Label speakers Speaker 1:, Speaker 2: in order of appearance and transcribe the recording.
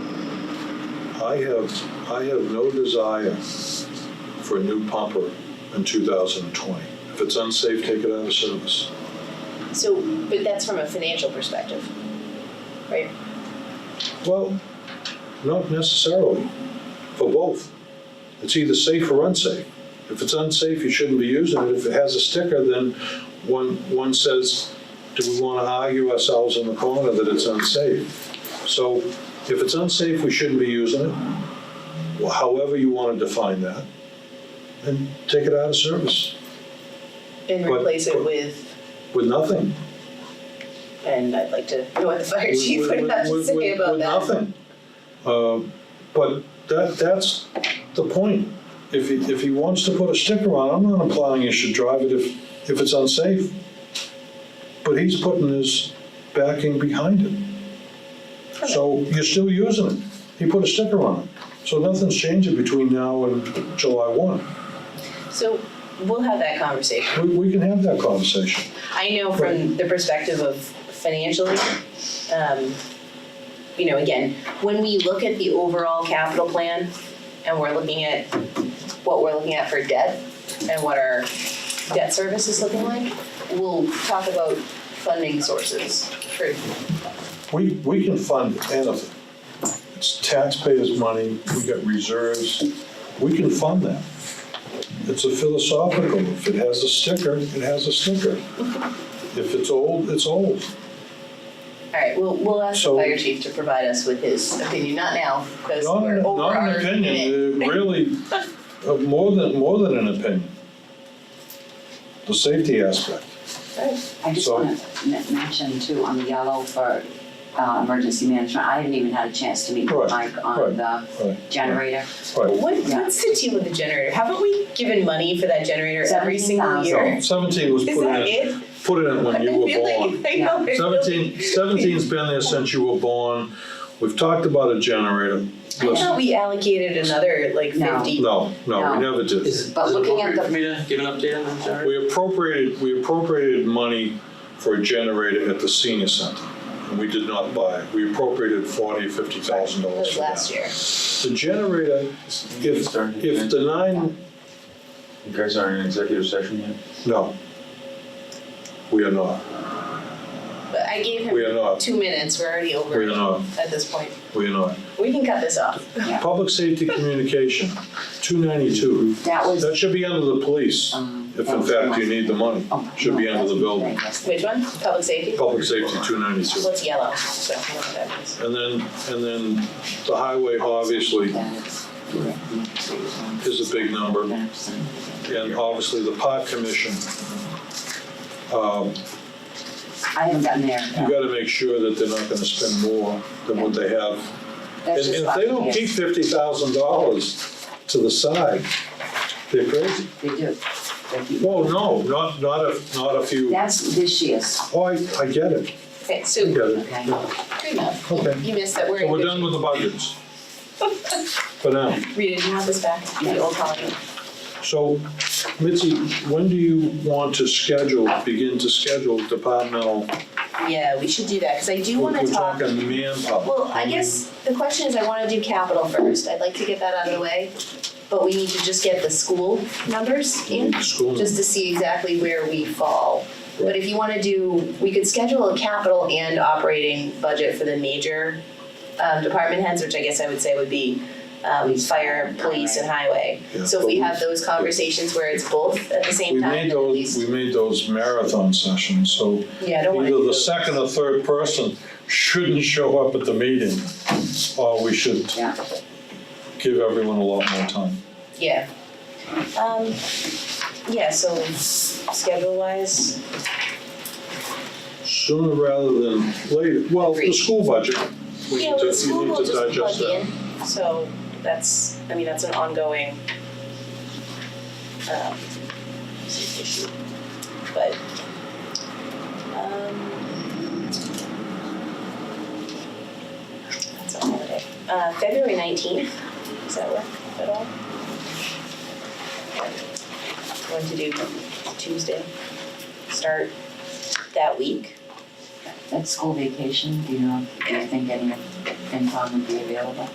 Speaker 1: I have, I have no desire for a new pumper in 2020. If it's unsafe, take it out of service.
Speaker 2: So, but that's from a financial perspective, right?
Speaker 1: Well, not necessarily, for both. It's either safe or unsafe. If it's unsafe, you shouldn't be using it. If it has a sticker, then one, one says, do we want to argue ourselves in the corner that it's unsafe? So if it's unsafe, we shouldn't be using it, Well, however you want to define that, and take it out of service
Speaker 2: And
Speaker 1: But-
Speaker 2: replace it with,
Speaker 1: with nothing.
Speaker 2: and I'd like to know what the fire chief would have to
Speaker 1: with-
Speaker 2: say
Speaker 1: with-
Speaker 2: about
Speaker 1: with
Speaker 2: that.
Speaker 1: nothing. Uh, But that, that's the point. If he, if he wants to put a sticker on, I'm not implying he should drive it if, if it's unsafe. But he's putting his backing behind it. So you're still using it. He put a sticker on it. So nothing's changing between now and July one.
Speaker 2: So we'll have that conversation.
Speaker 1: We, we can have that conversation.
Speaker 2: I know from the perspective of financially, um, you know, again, when we look at the overall capital plan and we're looking at what we're looking at for debt and what our debt service is looking like, we'll talk about funding sources for
Speaker 1: We, we can fund anything. It's taxpayers' money, we got reserves, we can fund that. It's a philosophical, if it has a sticker, it has a sticker. If it's old, it's old.
Speaker 2: All right, we'll, we'll ask the
Speaker 1: So-
Speaker 2: fire chief to provide us with his opinion, not now, because
Speaker 1: Not,
Speaker 2: we're
Speaker 1: an-
Speaker 2: over
Speaker 1: not
Speaker 2: our
Speaker 1: an
Speaker 2: minute.
Speaker 1: opinion, uh, really, uh, more than, more than an opinion. The safety aspect. uh,
Speaker 3: I just
Speaker 1: So-
Speaker 3: want to mention too, on the yellow for uh, emergency management, I haven't even had a chance to meet
Speaker 1: Right,
Speaker 3: with Mike
Speaker 1: right,
Speaker 3: on the
Speaker 1: right,
Speaker 3: generator.
Speaker 1: Right,
Speaker 2: What,
Speaker 3: Yeah.
Speaker 2: what's the deal with the generator? Haven't we given money for that generator every single
Speaker 3: 17,000.
Speaker 2: year?
Speaker 1: seventeen was
Speaker 2: Is
Speaker 1: put in,
Speaker 2: that it?
Speaker 1: it- put in it when you were born.
Speaker 2: I feel like, I know, I feel like-
Speaker 1: Seventeen, seventeen's been there since you were born. We've talked about a generator.
Speaker 2: I
Speaker 1: Listen,
Speaker 2: thought we allocated another like
Speaker 3: No.
Speaker 2: fifty.
Speaker 1: no, no,
Speaker 3: No.
Speaker 1: we never did.
Speaker 4: Is it,
Speaker 3: But
Speaker 4: is it
Speaker 3: looking at
Speaker 4: appropriate for me to give an update on the generator?
Speaker 1: We appropriated, we appropriated money for a generator at the senior center. And we did not buy it. We appropriated forty, fifty thousand
Speaker 2: That
Speaker 1: dollars
Speaker 2: was
Speaker 1: for
Speaker 2: last
Speaker 1: that.
Speaker 2: year.
Speaker 1: The generator, if, if the nine,
Speaker 5: You guys aren't in executive session yet?
Speaker 1: no. We are not,
Speaker 2: But I gave
Speaker 1: we are
Speaker 2: him
Speaker 1: not,
Speaker 2: two minutes, we're already
Speaker 1: we are
Speaker 2: over
Speaker 1: not,
Speaker 2: at this point.
Speaker 1: we are not.
Speaker 2: We can cut this off.
Speaker 1: Public safety communication, two ninety-two.
Speaker 3: That was.
Speaker 1: That should be under the police.
Speaker 3: um,
Speaker 1: If
Speaker 3: that
Speaker 1: in
Speaker 3: was
Speaker 1: fact
Speaker 3: the
Speaker 1: you need the money,
Speaker 3: one. Oh,
Speaker 1: should
Speaker 3: no,
Speaker 1: be under
Speaker 3: that's
Speaker 1: the building.
Speaker 3: right,
Speaker 2: Which one? Public safety?
Speaker 1: Public safety, two ninety-two.
Speaker 2: What's yellow? So I don't know what that means.
Speaker 1: And then, and then the highway obviously
Speaker 3: that's- that's-
Speaker 1: is a big number,
Speaker 3: that's-
Speaker 1: and obviously the park commission. Um,
Speaker 3: I haven't gotten there.
Speaker 1: You gotta make sure that they're not gonna spend more than what they have. And
Speaker 3: That's
Speaker 1: and
Speaker 3: just
Speaker 1: if they
Speaker 3: last
Speaker 1: don't
Speaker 3: year.
Speaker 1: keep fifty thousand dollars to the side, they're crazy.
Speaker 3: They do. They keep-
Speaker 1: Well, no, not, not if, not if you,
Speaker 3: That's this year's,
Speaker 1: oh, I, I get it,
Speaker 2: Okay,
Speaker 1: I
Speaker 2: so,
Speaker 1: get it.
Speaker 3: okay?
Speaker 2: good enough.
Speaker 1: Okay.
Speaker 2: You missed that, we're in
Speaker 1: So we're
Speaker 2: good
Speaker 1: done with the budgets. For now.
Speaker 2: Rita, do you have this back? The old copy?
Speaker 1: So Mitzi, when do you want to schedule, begin to schedule departmental?
Speaker 2: Yeah, we should do that, because I do
Speaker 1: We're
Speaker 2: want to talk.
Speaker 1: talking manpower.
Speaker 2: Well, I guess the question is, I want to do capital first, I'd like to get that out of the way. But we need to just get the school numbers in,
Speaker 1: School.
Speaker 2: just to see exactly where we fall. But if you want to do, we could schedule a capital and operating budget for the major um, department heads, which I guess I would say would be um, fire, police, and highway.
Speaker 1: Yeah.
Speaker 2: So if we have those conversations where it's both at the
Speaker 1: We
Speaker 2: same time,
Speaker 1: made
Speaker 2: then at
Speaker 1: those,
Speaker 2: least,
Speaker 1: we made those marathon sessions, so
Speaker 2: yeah, I don't want to.
Speaker 1: either the second or third person shouldn't show up at the meeting, or we should
Speaker 3: Yeah.
Speaker 1: give everyone a lot more time.
Speaker 2: Yeah. Um, yeah, so schedule wise,
Speaker 1: Sooner rather than later, well, the
Speaker 2: Agreed.
Speaker 1: school budget, we
Speaker 2: yeah,
Speaker 1: need to,
Speaker 2: with school
Speaker 1: we need
Speaker 2: will
Speaker 1: to
Speaker 2: just plug
Speaker 1: digest that.
Speaker 2: in, so that's, I mean, that's an ongoing um issue, but um that's a holiday. Uh February nineteenth, does that work at all? Going to do Tuesday, start that week.
Speaker 3: That's school vacation, do you know, do you think any income would be available?